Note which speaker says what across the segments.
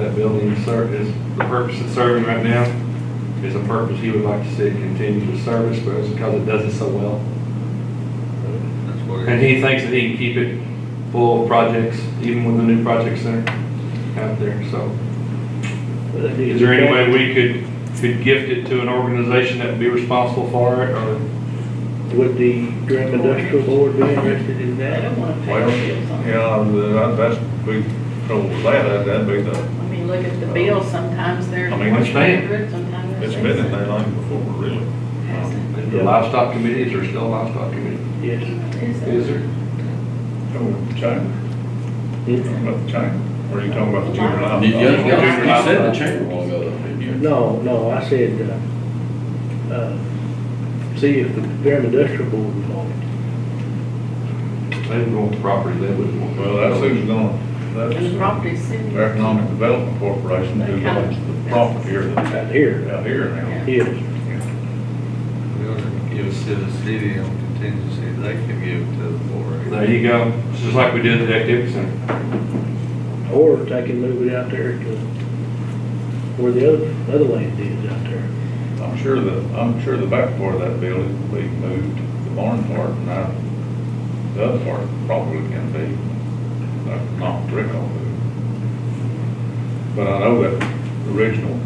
Speaker 1: that building ser- is, the purpose it's serving right now is a purpose he would like to see it continue to service, but it's because it does it so well.
Speaker 2: That's what
Speaker 1: And
Speaker 2: it is.
Speaker 1: he thinks that he can keep it full of projects, even with the new project center out there, so. Is there any way we could, could gift it to an organization that would be responsible for it, or?
Speaker 3: Would the Durham Industrial Board be interested in
Speaker 4: I
Speaker 3: that?
Speaker 4: don't want to pay
Speaker 2: Well,
Speaker 4: bills on it.
Speaker 2: yeah, that- that's, we told that, that- that'd be the,
Speaker 4: I mean, look at the bills, sometimes they're
Speaker 2: I mean,
Speaker 4: one
Speaker 2: it's
Speaker 1: been-
Speaker 4: hundred, sometimes they're.
Speaker 2: it's been in there long before, really.
Speaker 4: Hasn't.
Speaker 1: The livestock committees are still livestock committees.
Speaker 3: Yes.
Speaker 4: Is it?
Speaker 1: there?
Speaker 2: Oh, China, about the China, or you talking about the junior
Speaker 5: You, you
Speaker 2: high?
Speaker 5: you said the chamber won't go up, didn't you?
Speaker 3: No, no, I said, uh, uh, see if the Durham Industrial Board would want it.
Speaker 1: They would want the property, they wouldn't want.
Speaker 2: Well, that's who's gonna,
Speaker 4: And the
Speaker 2: that's
Speaker 4: property city.
Speaker 2: the Economic Development Corporation who owns the property here, that's
Speaker 3: Out here,
Speaker 2: out here now.
Speaker 3: yes.
Speaker 6: We ought to give it to the city on contingency, they can give it to the board.
Speaker 1: There you go, It's just like we did at the activity center.
Speaker 3: uh, Or they can move it out there to where the other, other land is out there.
Speaker 2: I'm sure the, I'm sure the back part of that building will be moved, the barn part, and I, the other part probably can be, like, not brick on it. But I know that the original,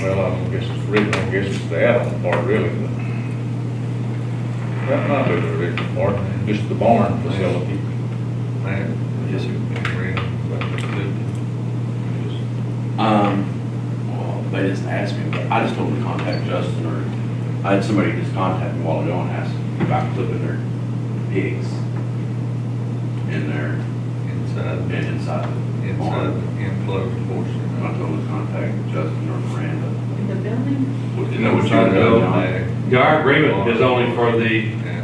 Speaker 2: well, I don't guess it's original, I guess it's the add-on part really, but that might be the original part, just the barn facility.
Speaker 6: Man, yes, it would be real, but it could. just-
Speaker 5: Um, well, they just asked me, but I just told them to contact Justin, or I had somebody just contact me a while ago and asked about clipping their pigs in there
Speaker 6: Inside,
Speaker 5: and
Speaker 6: the-
Speaker 5: inside the
Speaker 6: inside
Speaker 5: barn.
Speaker 6: the enclosed portion.
Speaker 5: And I
Speaker 6: of
Speaker 5: told them to contact Justin or Miranda.
Speaker 4: In the building,
Speaker 5: What-
Speaker 6: it.
Speaker 5: You know what you
Speaker 6: Inside the
Speaker 5: know, John?
Speaker 6: building,
Speaker 1: Our agreement is only for the
Speaker 6: Yeah,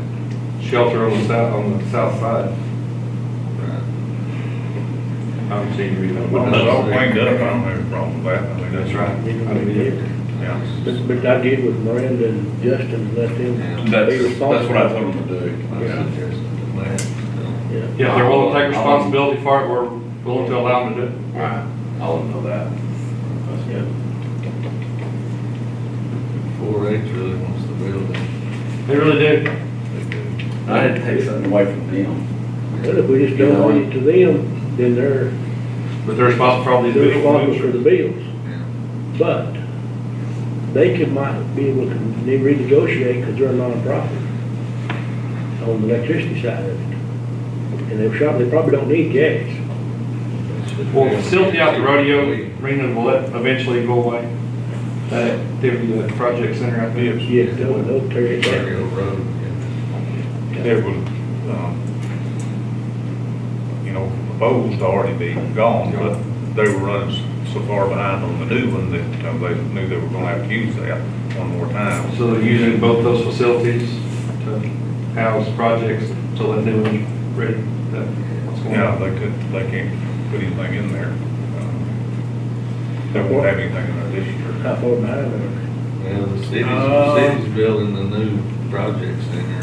Speaker 1: shelter on the south, on the south side.
Speaker 6: right.
Speaker 1: I haven't seen you read that.
Speaker 2: When it's all cleaned up, I don't have a problem with that, I mean, that's right,
Speaker 1: I mean,
Speaker 2: yeah.
Speaker 3: But, but I get with Miranda and Justin and let them be
Speaker 5: That's,
Speaker 3: responsible.
Speaker 5: that's what I told them to do.
Speaker 6: My suggestion to that,
Speaker 1: Yeah,
Speaker 3: Yeah.
Speaker 1: if they're willing to take responsibility for it, we're willing to allow them to do it.
Speaker 5: Alright, I'll let them know that. That's good.
Speaker 6: four H really wants the building.
Speaker 1: They really do.
Speaker 5: I had to take something away from them.
Speaker 3: But if we just don't leave it to them, then they're,
Speaker 1: But they're responsible for all these
Speaker 3: they're responsible for
Speaker 1: bills.
Speaker 3: the bills. But they could might be able to ne- renegotiate because they're a nonprofit on the electricity side of it. And they probably, they probably don't need gas.
Speaker 1: Well, the facility out the rodeo arena will let- eventually go away. That activity, the project center out there.
Speaker 3: Yes, they'll, they'll tear it down.
Speaker 6: Rodeo Road, yeah.
Speaker 2: it would, um, you know, the bowls already be gone, but they were running s- so far behind on the new one that, you know, they knew they were gonna have to use that one more time.
Speaker 1: So they're using both those facilities to house projects till that new one's ready. That- what's going
Speaker 2: Yeah,
Speaker 1: on.
Speaker 2: they could, they can't put anything in there. um, They won't have anything in there this year.
Speaker 3: How far behind are
Speaker 6: Well, the city's,
Speaker 2: Uh,
Speaker 6: the city's building the new project center.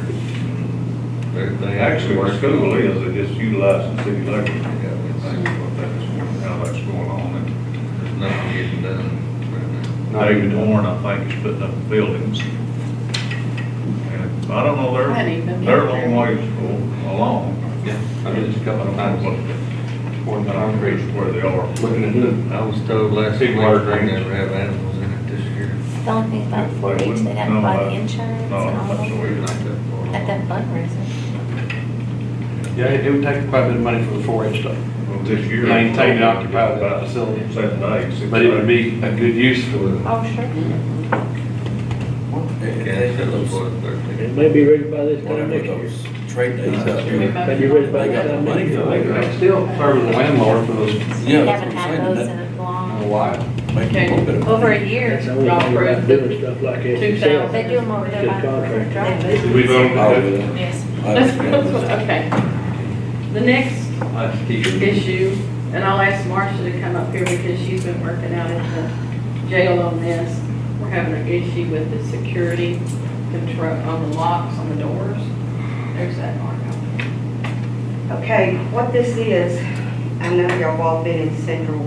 Speaker 6: They, they
Speaker 2: Actually,
Speaker 6: actually
Speaker 2: where
Speaker 6: work.
Speaker 2: school is, they just utilize the city library.
Speaker 6: Yeah, it's-
Speaker 2: That's how that's going on. And
Speaker 6: There's nothing getting done right now.
Speaker 1: Not even
Speaker 2: David Warren, I think, is putting up buildings. And I don't know,
Speaker 4: I hadn't
Speaker 2: they're,
Speaker 4: even been
Speaker 2: they're a
Speaker 4: there.
Speaker 2: long ways al- along.
Speaker 1: Yeah, I mean, just a
Speaker 2: I
Speaker 1: couple of
Speaker 2: don't know
Speaker 1: times,
Speaker 2: what,
Speaker 1: pouring
Speaker 2: I don't
Speaker 1: concrete,
Speaker 2: know where they are.
Speaker 1: looking at the
Speaker 6: I was told last week they
Speaker 1: People are strange.
Speaker 6: never have animals in it this year.
Speaker 7: The only thing about four H, they'd have to buy the insurance and
Speaker 2: No, I'm
Speaker 7: all
Speaker 2: not
Speaker 7: that.
Speaker 2: sure.
Speaker 6: We're not that far along.
Speaker 7: At that fundraiser.
Speaker 1: Yeah, it it would take quite a bit of money for the four H stuff,
Speaker 2: Well, This year.
Speaker 1: maintain and occupy that
Speaker 2: About
Speaker 1: facility.
Speaker 2: Seven days. six
Speaker 1: But it would
Speaker 2: days.
Speaker 1: be a good use for it.
Speaker 7: Oh, sure.
Speaker 5: If
Speaker 6: Yeah,
Speaker 5: they
Speaker 6: it's
Speaker 5: put
Speaker 6: up
Speaker 5: those-
Speaker 6: for
Speaker 3: they?
Speaker 6: thirteen.
Speaker 3: It may be ready by this time
Speaker 5: whatever
Speaker 3: next year.
Speaker 5: those trade days up
Speaker 4: we
Speaker 5: there.
Speaker 3: Maybe ready by this
Speaker 5: They got the
Speaker 3: time next
Speaker 5: money
Speaker 3: year.
Speaker 5: for
Speaker 1: They
Speaker 5: it.
Speaker 1: could still serve as a landlord for those in
Speaker 5: Yeah,
Speaker 7: We
Speaker 5: that's
Speaker 7: haven't
Speaker 5: what I'm
Speaker 7: had
Speaker 5: saying,
Speaker 7: those
Speaker 5: that-
Speaker 7: in a
Speaker 1: a
Speaker 7: long,
Speaker 1: while.
Speaker 5: Make a little bit of money.
Speaker 7: over a year.
Speaker 3: That's the only thing about doing stuff like that.
Speaker 4: Two
Speaker 3: yourself.
Speaker 4: thousand.
Speaker 7: They do them over there by
Speaker 3: Good contract.
Speaker 7: the drive.
Speaker 1: Did we vote
Speaker 5: Oh,
Speaker 1: on that?
Speaker 5: yeah.
Speaker 7: Yes.
Speaker 4: That's,
Speaker 5: I understand.
Speaker 4: that's what, okay. The next
Speaker 1: That's key.
Speaker 4: issue, and I'll ask Marcia to come up here because she's been working out at the jail on this. We're having an issue with the security control on the locks on the doors. There's that mark on it.
Speaker 8: Okay, what this is, I know y'all all been in Central